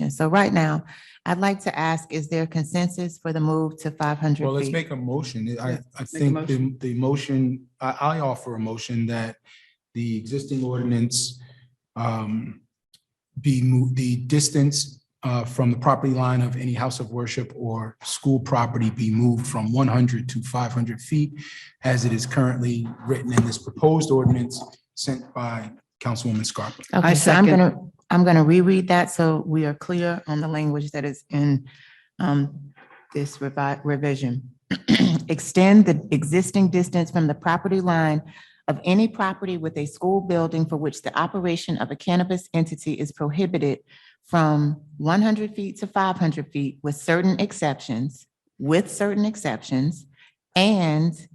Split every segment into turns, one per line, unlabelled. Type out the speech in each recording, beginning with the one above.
discussion. So right now, I'd like to ask, is there consensus for the move to five hundred
Well, let's
feet?
make a motion. I, I
a
think the, the motion, I, I offer a motion that the existing ordinance um, be moved, the distance uh, from the property line of any house of worship or school property be moved from one hundred to five hundred feet as it is currently written in this proposed ordinance sent by Councilwoman Scarpa.
Okay,
I
so I'm
second.
gonna, I'm gonna reread that so we are clear on the language that is in um, this revi- revision. Extend the existing distance from the property line of any property with a school building for which the operation of a cannabis entity is prohibited from one hundred feet to five hundred feet with certain exceptions, with certain exceptions, and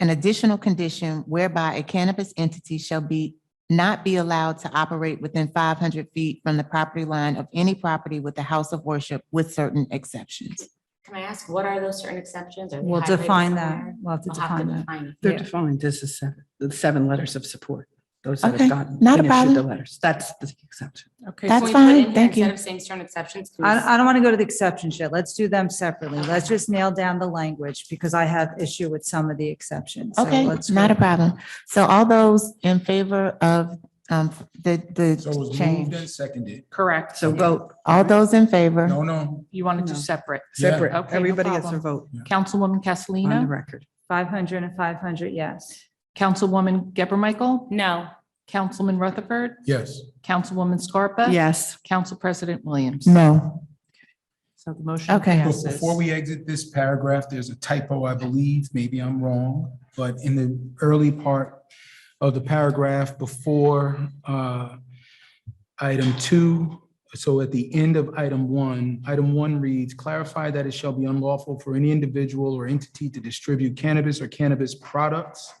an additional condition whereby a cannabis entity shall be not be allowed to operate within five hundred feet from the property line of any property with a house of worship with certain exceptions.
Can I ask, what are those certain exceptions? Are they
We'll
highlighted
define that.
somewhere?
We'll have to
We'll have to
define that.
define it.
They're
Yeah.
defined as the seven, the seven letters of support, those that
Okay,
have gotten.
not a
and issued The
problem.
letters, that's the exception.
Okay.
Can
That's
we put in
fine,
here
thank you.
Instead of saying certain exceptions. can we s-
I, I don't want to go to the exceptions yet. Let's do them separately. Let's just nail down the language because I have issue with some of the exceptions. So
Okay,
let's
not a
go.
problem. So all those in favor of um, the,
So it
the
was moved and
change,
seconded.
Correct.
So vote
all those in favor?
No, no.
You wanted to
No.
separate.
Yeah.
separate,
Okay, no
everybody gets their
problem.
vote
Councilwoman
on the
Castellino,
record.
500 and 500, yes.
Councilwoman Geber Michael,
No,
Councilman Rutherford,
Yes.
Councilwoman Scarpa.
Yes,
Council President Williams.
No.
So the motion
Okay.
Be-
passes.
Before we exit this paragraph, there's a typo, I believe, maybe I'm wrong, but in the early part of the paragraph before uh, item two, so at the end of item one, item one reads, clarify that it shall be unlawful for any individual or entity to distribute cannabis or cannabis products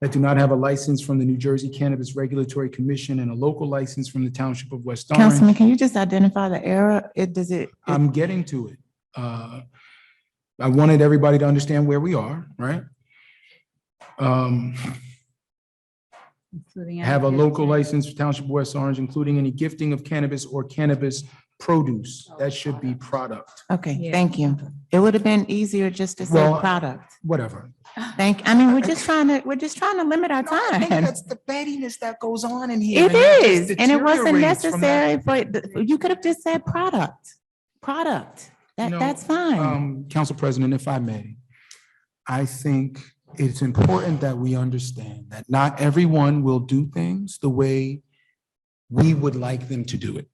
that do not have a license from the New Jersey Cannabis Regulatory Commission and a local license from the Township of West Orange.
Councilman, can you just identify the error? It, does it? it-
I'm getting to it. Uh, I wanted everybody to understand where we are, right? Um,
including
have a
any-
local license for Township of West Orange, including any gifting of cannabis or cannabis produce.
Oh,
That should be product,
Okay,
Yeah.
thank you. It would have been easier just to say
Well,
product.
whatever.
Thank, I mean, we're just trying to, we're just trying to limit our time.
the pettiness that goes on in
It is, and it wasn't necessary, but the- you could have just said product, product. That,
No,
that's fine.
Um, Council President, if I may, I think it's important that we understand that not everyone will do things the way we would like them to do it.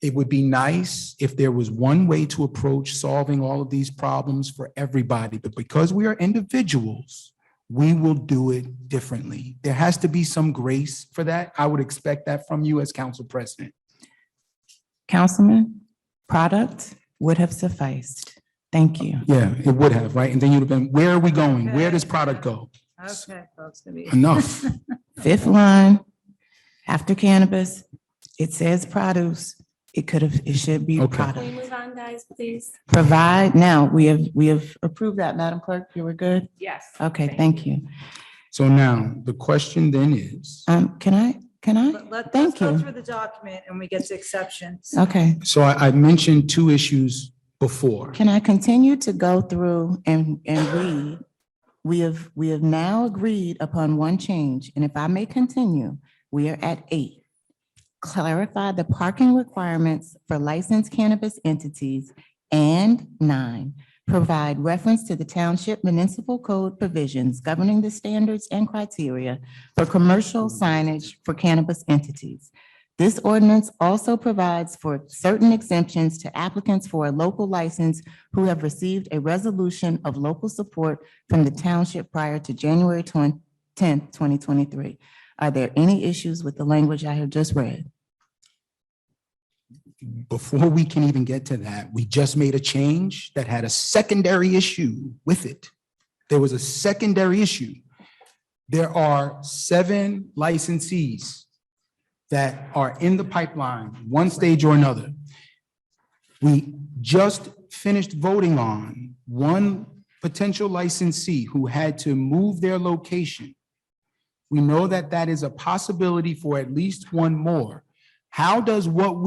It would be nice if there was one way to approach solving all of these problems for everybody, but because we are individuals, we will do it differently. There has to be some grace for that. I would expect that from you as Council President.
Councilman, product would have sufficed. Thank you.
Yeah, it would have, right? And then you'd have been, where are we going? Where does product go?
Okay, folks, gonna be-
Enough.
Fifth line, after cannabis, it says produce. It could have, it should be
Okay.
can we
product.
move on, guys, please?
Provide, now, we have, we have approved that, Madam Clerk. You were good?
Yes.
Okay, thank you.
So now, the question then is,
Um, can I, can
But
I?
let-
Mm-hmm. Thank
Let's
you.
go through the document and we get to exceptions.
Okay.
so I, I mentioned two issues before.
Can I continue to go through and, and read? We have, we have now agreed upon one change, and if I may continue, we are at eight. Clarify the parking requirements for licensed cannabis entities. And nine, provide reference to the township municipal code provisions governing the standards and criteria for commercial signage for cannabis entities. This ordinance also provides for certain exemptions to applicants for a local license who have received a resolution of local support from the township prior to January tenth, twenty twenty-three. Are there any issues with the language I have just read?
Before we can even get to that, we just made a change that had a secondary issue with it. There was a secondary issue. There are seven licensees that are in the pipeline, one stage or another. We just finished voting on one potential licensee who had to move their location. We know that that is a possibility for at least one more. How does what